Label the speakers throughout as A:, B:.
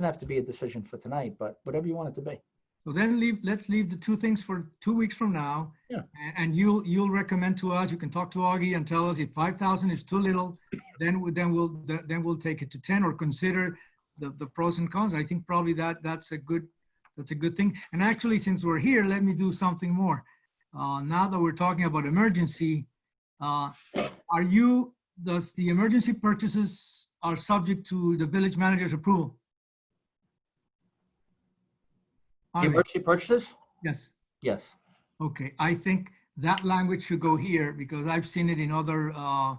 A: Doesn't have to be a decision for tonight, but whatever you want it to be.
B: So then leave, let's leave the two things for two weeks from now.
A: Yeah.
B: a- And you'll, you'll recommend to us, you can talk to Augie and tell us if 5,000 is too little, then, we- then we'll, th- then we'll take it to 10 or consider the, the pros and cons. I think probably that, that's a good, that's a good thing. And actually, since we're here, let me do something more. Uh, Now that we're talking about emergency, uh, are you, does the emergency purchases are subject to the village manager's approval?
A: The
B: Are they?
A: Emergency purchases?
B: Yes.
A: Yes.
B: Okay, I think that language should go here because I've seen it in other uh,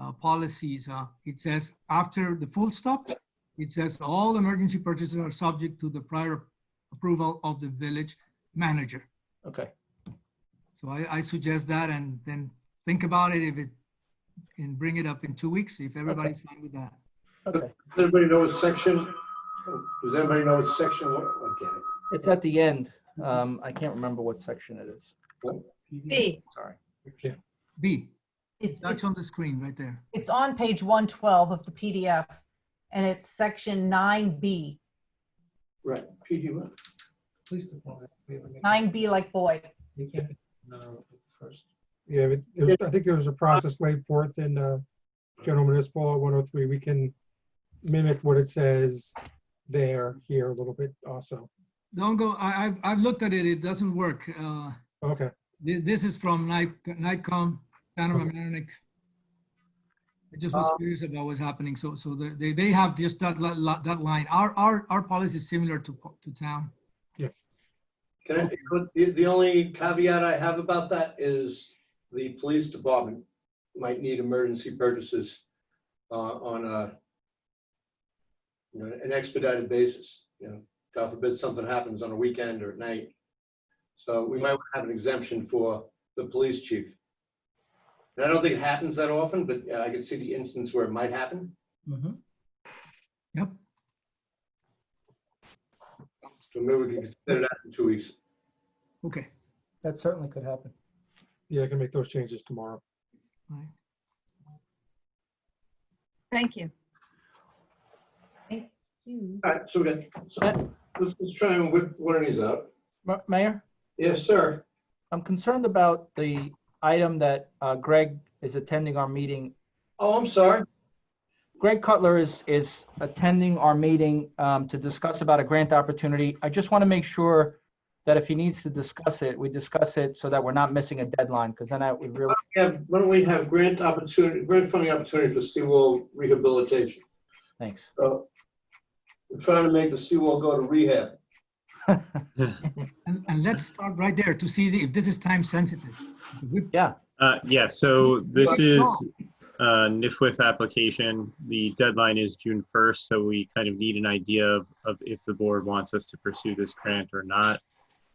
B: uh, policies. uh, It says after the full stop, it says all emergency purchases are subject to the prior approval of the village manager.
A: Okay.
B: So I, I suggest that and then think about it if it, and bring it up in two weeks if everybody's fine with that.
A: Okay.
C: Does anybody know what section, does anybody know what section, what, what can it?
A: It's at the end. Um, I can't remember what section it is.
D: B,
A: Sorry.
B: B,
D: it's,
B: that's on the screen right there.
D: it's on page 112 of the PDF, and it's section 9B,
C: Right, PD
E: uh,
C: one.
E: Police department. we have a meeting.
D: 9B like boy.
E: You can't, no, first.
F: Yeah, but it was, I think there was a process laid forth in, uh, General Municipal Law one oh three. We can mimic what it says there, here a little bit also.
B: Don't go, I, I've, I've looked at it, it doesn't work. Uh,
F: Okay,
B: This, this is from Nic- Nikon, Panama American. I just was
A: Um,
B: curious about what's happening. So, so the- they, they have just that, li- li- that line. Our, our, our policy is similar to, po- to town.
C: Can I, but the, the only caveat I have about that is the police department might need emergency purchases uh, on a, you know, an expedited basis, you know, God forbid something happens on a weekend or at night. So we might have an exemption for the police chief. And I don't think it happens that often, but uh, I could see the instance where it might happen.
B: Yep.
C: So maybe we can consider that in two weeks.
B: Okay.
A: That certainly could happen.
F: yeah, I can make those changes tomorrow.
B: Right.
G: Thank you.
C: All right, so we got, so let's, let's try and whip one of these out.
A: Ma- Mayor,
C: Yes, sir.
A: I'm concerned about the item that uh, Greg is attending our meeting.
C: Oh, I'm sorry.
A: Greg Cutler is, is attending our meeting um, to discuss about a grant opportunity. I just want to make sure that if he needs to discuss it, we discuss it so that we're not missing a deadline, because then I would really,
C: Yeah, why don't we have grant opportunity, grant funding opportunity for seawall rehabilitation?
A: thanks.
C: So we're trying to make the seawall go to rehab.
B: And, and let's start right there to see the- if this is time sensitive.
A: Mm-hmm.
B: We-
H: Uh, Yeah, so this
B: But-
H: is uh NIFWIF application. The deadline is June 1st, so we kind of need an idea of of if the board wants us to pursue this grant or not,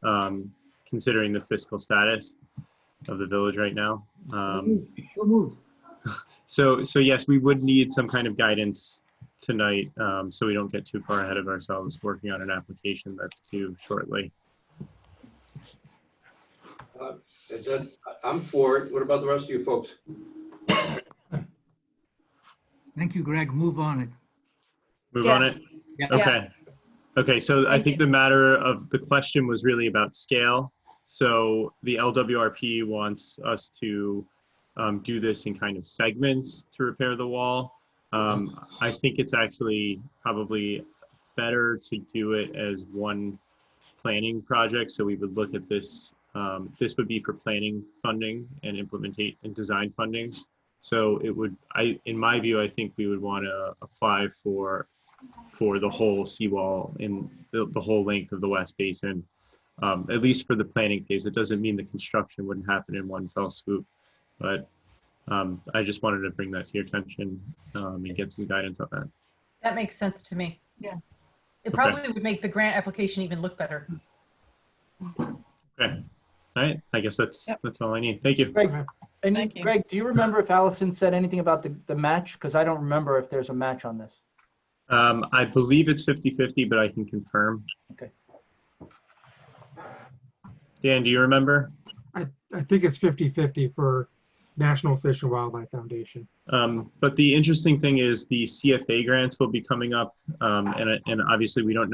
H: um, considering the fiscal status of the village right now. Um,
B: So moved.
H: So, so yes, we would need some kind of guidance tonight, um, so we don't get too far ahead of ourselves working on an application that's due shortly.
C: Is that- I'm for it. What about the rest of you folks?
B: Thank you, Greg. Move on it.
H: Move on it?
B: Yeah.
H: Okay. Okay, so I think the matter of, the question was really about scale. So the LWRP wants us to um, do this in kind of segments to repair the wall. Um, I think it's actually probably better to do it as one planning project. So we would look at this, um, this would be for planning funding and implementate and design funding. So it would, I, in my view, I think we would want to apply for for the whole seawall in the, the whole length of the West Basin, um, at least for the planning phase. It doesn't mean the construction wouldn't happen in one fell swoop, but um, I just wanted to bring that to your attention um, and get some guidance on that.
D: That makes sense to me.
G: Yeah.
D: It
H: Okay.
D: probably would make the grant application even look better.
H: Okay. All right. I guess that's
G: Yep.
H: that's all I need. Thank you.
A: Greg, and
G: Thank you.
A: Greg, do you remember if Allison said anything about the, the match? Because I don't remember if there's a match on this.
H: Um, I believe it's 50 50, but I can confirm.
A: Okay.
H: Dan, do you remember?
F: I think it's 50-50 for National Fish and Wildlife Foundation.
H: Um, but the interesting thing is the CFA grants will be coming up, um, and, and obviously we don't know.